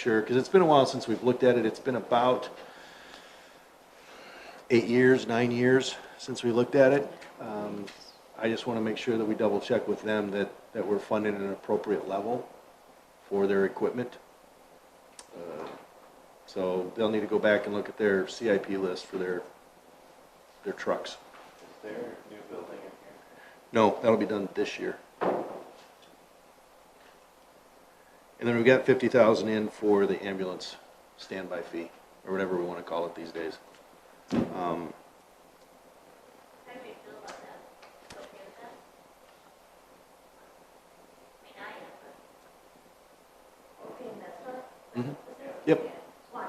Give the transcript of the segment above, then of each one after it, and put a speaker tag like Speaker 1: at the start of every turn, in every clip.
Speaker 1: Sure, because it's been a while since we've looked at it. It's been about eight years, nine years since we looked at it. Um, I just want to make sure that we double check with them that, that we're funding at an appropriate level for their equipment. Uh, So they'll need to go back and look at their CIP list for their, their trucks.
Speaker 2: Is there a new building in here?
Speaker 1: No, that'll be done this year. And then we've got fifty thousand in for the ambulance standby fee, or whatever we wanna call it these days. Um,
Speaker 3: How do you feel about that? You Okay with that? I mean, I am, but. Okay, and that's what?
Speaker 1: Mhm.
Speaker 3: Is there-
Speaker 1: Yep.
Speaker 3: yeah. Why?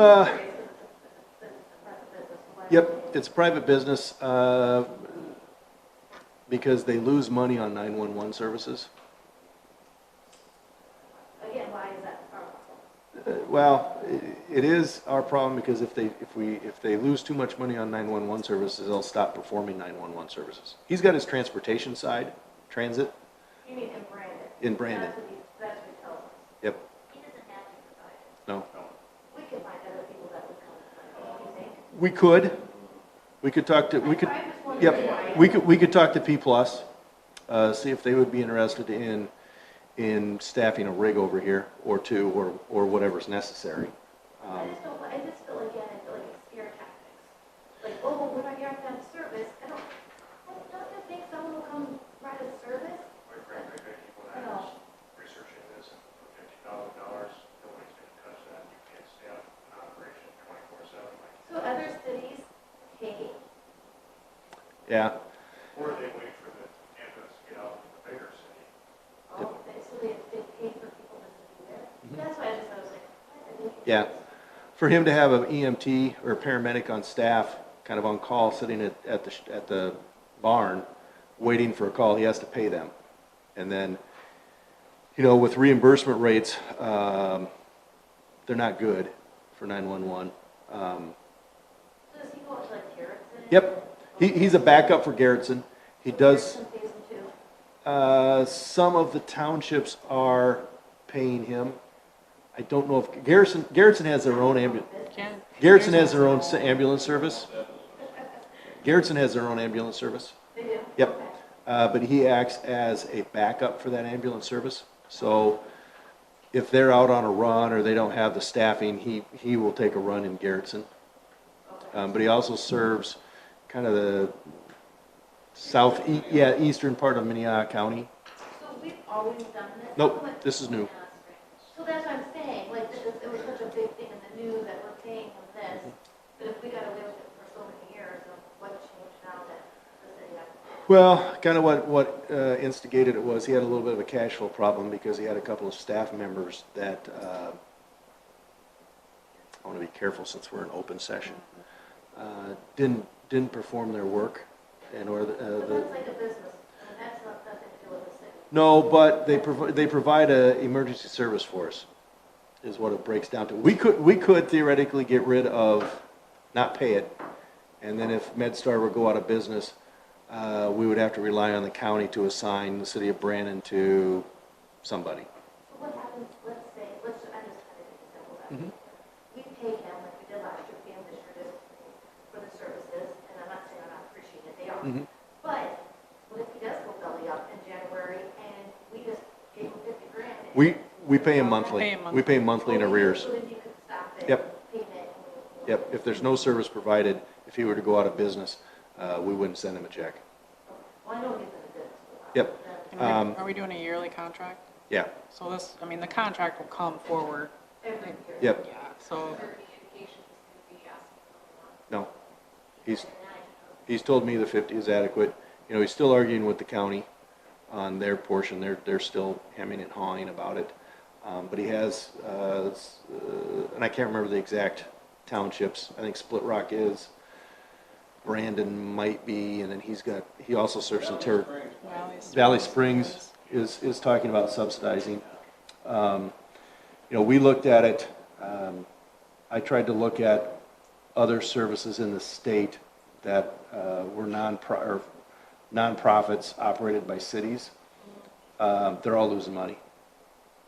Speaker 1: uh,
Speaker 3: Because it's a- it's a private business, why?
Speaker 1: yep, it's private business, uh, because they lose money on nine-one-one services.
Speaker 3: Again, why is that powerful?
Speaker 1: Uh, Well, i- it is our problem because if they, if we, if they lose too much money on 911 services, they'll stop performing 911 services. He's got his transportation side, transit,
Speaker 3: You mean in Brandon?
Speaker 1: In Brandon.
Speaker 3: That's what he, that's what he tells us.
Speaker 1: yep,
Speaker 3: He doesn't have to provide it.
Speaker 1: no.
Speaker 3: We can find other people that would come, don't you think?
Speaker 1: We could, we could talk to, we could,
Speaker 3: I just wondered why.
Speaker 1: yep, we could, we could talk to P Plus, uh, see if they would be interested in, in staffing a rig over here or two or, or whatever's necessary.
Speaker 3: I
Speaker 1: Um,
Speaker 3: just don't, I just feel again, I feel like it's scare tactics. Like, oh, well, we're not here to have service, I don't, I don't you think someone will come provide a service?
Speaker 2: My friend, my friend, people that
Speaker 3: No.
Speaker 2: was researching this, and for fifty thousand dollars, nobody's gonna touch that, you can't stay out in operation twenty-four seven, like.
Speaker 3: So other cities pay,
Speaker 1: Yeah,
Speaker 2: Or they wait for the ambulance to get out of the bigger city.
Speaker 3: oh, they- so they, they pay for people to be there.
Speaker 1: Mm-hmm.
Speaker 3: That's why I just, I was like, I didn't think-
Speaker 1: Yeah. for him to have an EMT or a paramedic on staff, kind of on call, sitting at, at the, sh- at the barn, waiting for a call, he has to pay them. And then, you know, with reimbursement rates, um, they're not good for 911. Um,
Speaker 3: So does he go to like Garrettson?
Speaker 1: Yep, he, he's a backup for Garrettson. He does,
Speaker 3: Garrettson pays them too.
Speaker 1: uh, some of the townships are paying him. I don't know if, Garrison, Garrettson has their own ambulance,
Speaker 4: Jan-
Speaker 1: Garrettson has their own s- ambulance service. Garrettson has their own ambulance service.
Speaker 3: They do?
Speaker 1: Yep.
Speaker 3: Okay.
Speaker 1: Uh, but he acts as a backup for that ambulance service. So if they're out on a run or they don't have the staffing, he, he will take a run in Garrettson.
Speaker 3: Okay.
Speaker 1: Um, but he also serves kind of the south, e, yeah, eastern part of Minnehaha County.
Speaker 3: So we've always done this?
Speaker 1: Nope,
Speaker 3: Like- "Oh
Speaker 1: this is new.
Speaker 3: So that's what I'm saying, like, this is- it was such a big thing in the news that we're paying them this,
Speaker 1: Mm-hmm.
Speaker 3: but if we got away with it for so many years, then what changed now that the city has?
Speaker 1: Well, kind of what, what uh, instigated it was, he had a little bit of a cash flow problem because he had a couple of staff members that, uh, I want to be careful since we're in open session, uh, didn't, didn't perform their work and or the, uh,
Speaker 3: But
Speaker 1: the
Speaker 3: that's like a business, and that's not, nothing to do with the city.
Speaker 1: No, but they provide, they provide a emergency service for us, is what it breaks down to. We could, we could theoretically get rid of, not pay it, and then if MedStar were to go out of business, uh, we would have to rely on the county to assign the city of Brandon to somebody.
Speaker 3: So what happens, let's say, let's, I just had an example that.
Speaker 1: Mm-hmm.
Speaker 3: We pay him, like we did last year, pay him this year, this, for the services, and I'm not saying I'm not appreciating it, they are.
Speaker 1: Mhm.
Speaker 3: But what if he does go belly up in January and we just gave him fifty grand? and-
Speaker 1: We, we pay him
Speaker 4: Pay
Speaker 1: monthly.
Speaker 4: him monthly.
Speaker 1: We pay him monthly in
Speaker 3: Well, we-
Speaker 1: arrears.
Speaker 3: so then you could stop it,
Speaker 1: Yep.
Speaker 3: payment, and-
Speaker 1: Yep, if there's no service provided, if he were to go out of business, uh, we wouldn't send him a check.
Speaker 3: Well, I don't get the business.
Speaker 1: Yep,
Speaker 4: and
Speaker 1: um,
Speaker 4: Are are we doing a yearly contract?
Speaker 1: yeah,
Speaker 4: So this, I mean, the contract will come forward,
Speaker 3: Every year.
Speaker 4: yeah,
Speaker 1: yep,
Speaker 4: so,
Speaker 1: no. He's,
Speaker 3: And I-
Speaker 1: he's told me the fifty is adequate. You know, he's still arguing with the county on their portion. They're, they're still hemming and hawing about it. Um, but he has, uh, s- uh, and I can't remember the exact townships. I think Split Rock is, Brandon might be, and then he's got, he also serves some territory.
Speaker 4: Valley Springs.
Speaker 1: Valley Springs is, is talking about subsidizing. Um, You know, we looked at it, um, I tried to look at other services in the state that uh, were non-pro, or nonprofits operated by cities. Um, They're all losing money.